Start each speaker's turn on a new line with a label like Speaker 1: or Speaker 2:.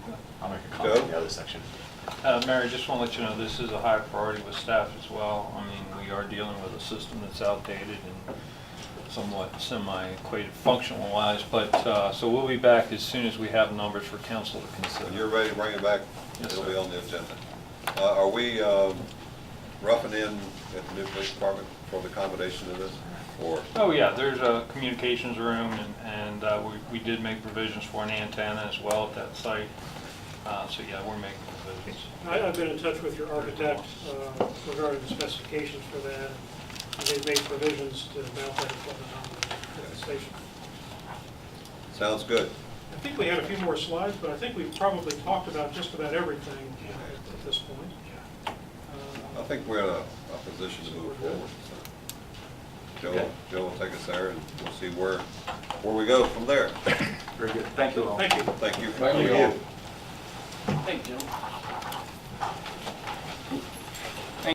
Speaker 1: I'll make a comment on
Speaker 2: Joe?
Speaker 1: the other section.
Speaker 3: Uh, Mary, just want to let you know, this is a high priority with staff as well. I mean, we are dealing with a system that's outdated and somewhat semi-equated functional-wise, but, uh, so we'll be back as soon as we have numbers for council to
Speaker 2: When you're
Speaker 3: consider.
Speaker 2: ready, bring it back.
Speaker 3: Yes,
Speaker 2: It'll
Speaker 3: sir.
Speaker 2: be on the agenda. Uh, Are we um, roughing in at the new police department for the accommodation of this? Or,
Speaker 3: Oh, yeah, there's a communications room, and- and uh, we we did make provisions for an antenna as well at that site. Uh, So, yeah, we're making provisions.
Speaker 4: I- I've been in touch with your architect uh, regarding the specifications for that. and They've made provisions to mount that equipment on the station.
Speaker 2: sounds good.
Speaker 4: I think we had a few more slides, but I think we've probably talked about just about everything uh, at at this point.
Speaker 2: I
Speaker 4: Uh,
Speaker 2: think we're in a a position to move forward. so. Joe,
Speaker 3: Okay.
Speaker 2: Joe will take us there and we'll see where, where we go from there.
Speaker 5: Very good. Thank you all.
Speaker 4: Thank you.
Speaker 2: Thank you. for
Speaker 5: Thank you.
Speaker 2: coming in.
Speaker 6: Thank you, Jim.